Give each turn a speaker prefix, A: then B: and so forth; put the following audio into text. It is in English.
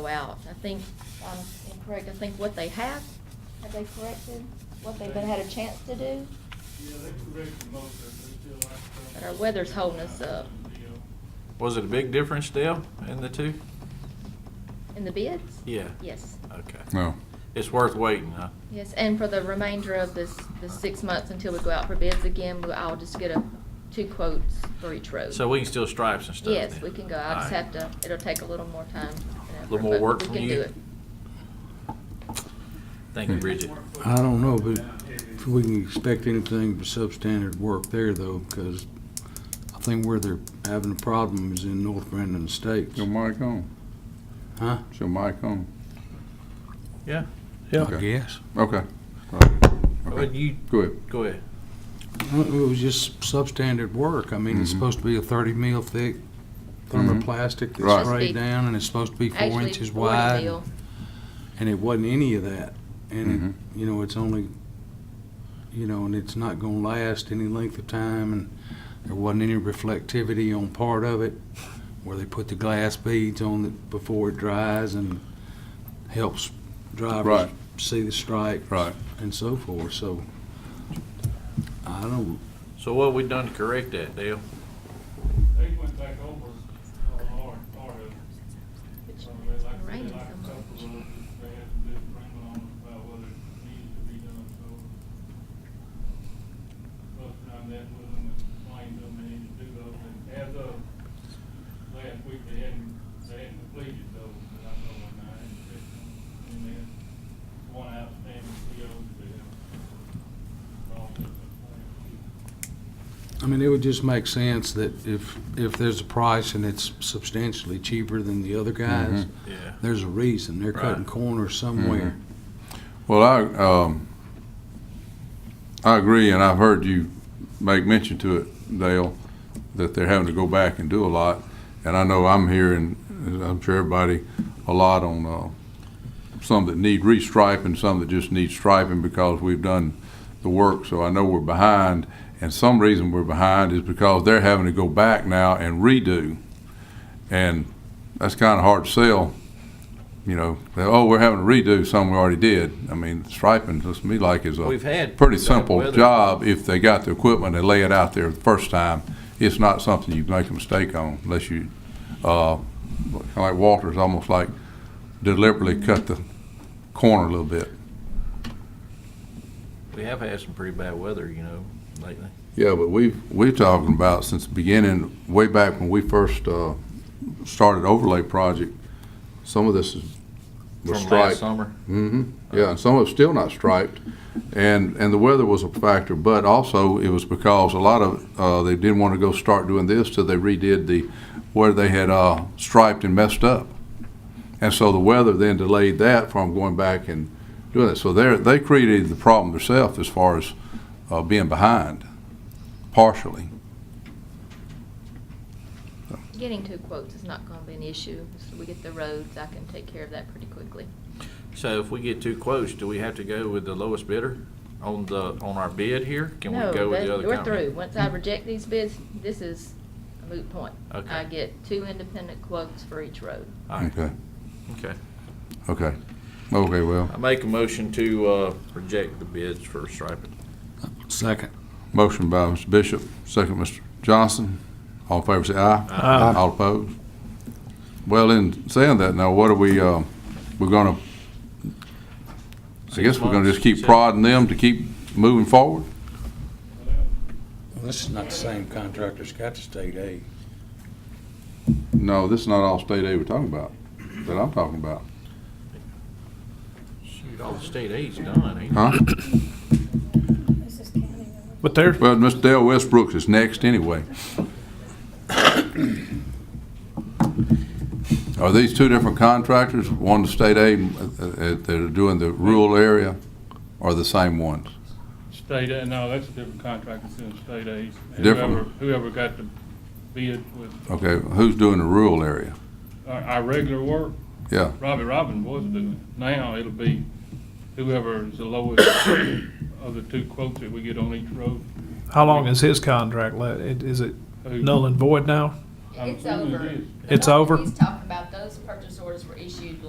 A: go out. I think, I'm incorrect, I think what they have, have they corrected what they've been had a chance to do?
B: Yeah, they corrected most of it, they still like some.
A: But our weather's holding us up.
C: Was it a big difference, Dale, in the two?
A: In the bids?
C: Yeah.
A: Yes,
C: Okay.
D: No.
C: It's worth waiting, huh?
A: yes, and for the remainder of this, the six months until we go out for bids again, we- I'll just get a, two quotes for each road.
C: So we can still stripes and stuff?
A: Yes,
C: then?
A: we can go. I just
C: All right.
A: have to, it'll take a little more time. and effort,
C: Little more
A: but
C: work
A: we
C: from
A: can
C: you?
A: do it.
C: Thank you,
E: Hmm.
C: Bridget.
D: I don't know, but if we can expect anything but substandard work there, though, because I think where they're having a problem is in North Brandon Estates.
E: Your mic on?
D: Huh?
E: Is your mic on?
C: Yeah,
D: I
E: Okay.
D: guess.
E: Okay. All right.
C: but
E: Okay.
C: you,
E: Go ahead.
C: go ahead.
D: Well, It was just substandard work. I mean, it's
E: Mhm.
D: supposed to be a thirty mil thick thermoplastic
E: Mm-hmm. Right.
D: that's sprayed down, and it's supposed to be four
A: Actually,
D: inches
A: Florida
D: wide,
A: Bill,
D: and it wasn't any of that. And,
E: Mm-hmm.
D: it- you know, it's only, you know, and it's not gonna last any length of time, and there wasn't any reflectivity on part of it, where they put the glass beads on it before it dries and helps drivers
E: Right.
D: see the stripes
E: Right.
D: and so forth, so I don't,
C: So what we done to correct that, Dale?
B: They went back over, uh, our part of it.
A: which-
B: So they like, they
A: raining
B: like a
A: so
B: couple
A: much.
B: of them, they had some big agreement on it about whether it needed to be done, so. Both around that with them and explained to them they needed to do those, and as of last week, they hadn't, they hadn't completed those, but I know when I hadn't fixed them. And then one outstanding PO that they have. Wrong with the plan.
D: I mean, it would just make sense that if, if there's a price and it's substantially cheaper than the other guys,
C: Yeah.
D: there's a reason, they're cutting
C: Right.
D: corners somewhere.
E: Well, I, um, I agree, and I've heard you make mention to it, Dale, that they're having to go back and do a lot. And I know I'm hearing, as I'm sure everybody, a lot on, uh, some that need restriping, some that just need striping because we've done the work, so I know we're behind. And some reason we're behind is because they're having to go back now and redo. And that's kinda hard to sell you know, they, oh, we're having to redo something we already did. I mean, striping, looks to me like is
C: We've
E: a
C: had.
E: pretty
C: bad
E: simple
C: weather.
E: job if they got the equipment, they lay it out there the first time. It's not something you make a mistake on unless you, uh, kind of like Walter's, almost like deliberately cut the corner a little bit.
C: We have had some pretty bad weather, you know, lately.
E: Yeah, but we've, we're talking about since the beginning, way back when we first, uh, started overlay project, some of this is, was
C: From
E: striped.
C: last summer.
E: hmm yeah, and some of it's still not striped, and, and the weather was a factor, but also it was because a lot of, uh, they didn't want to go start doing this till they redid the, where they had, uh, striped and messed up. And so the weather then delayed that from going back and doing it, so they're, they created the problem themselves as far as, uh, being behind, partially.
A: Getting two quotes is not gonna be an issue. So we get the roads, I can take care of that pretty quickly.
C: So if we get two quotes, do we have to go with the lowest bidder on the, on our bid here? Can we
A: No,
C: go with
A: that-
C: the other
A: we're
C: company?
A: through. Once I reject these bids, this is a moot point.
C: Okay.
A: I get two independent quotes for each road.
C: All right,
E: Okay,
C: okay.
E: okay, okay, well,
C: I make a motion to, uh, reject the bids for striping.
D: Second.
E: motion by Mr. Bishop, second Mr. Johnson, all in favor say aye.
C: Aye.
E: All opposed? Well, in saying that, now what are we, uh, we're gonna, I guess we're gonna just keep prodding them to keep moving forward?
D: This is not the same contractor, it's got to state aid.
E: No, this is not all state aid we're talking about, that I'm talking about,
C: Shoot, all the state aid's done, ain't it?
E: huh?
F: But there's,
E: Well, Mr. Dale Westbrook is next anyway. Are these two different contractors, one the state aid, uh, uh, that are doing the rural area, or the same ones?
B: State aid, no, that's a different contract, it's in state aid.
E: Different.
B: Whoever- Whoever got the bid with
E: Okay, who's doing the rural area?
B: our, our regular work,
E: Yeah,
B: Robbie Robin was doing it. Now it'll be whoever is the lowest of the two quotes that we get on each road.
F: how long is his contract left? It- Is it
B: Who-
F: null and void now?
B: I'm
A: It's
B: assuming it
A: over.
B: is.
F: It's over?
A: He's talking about those purchase orders were issued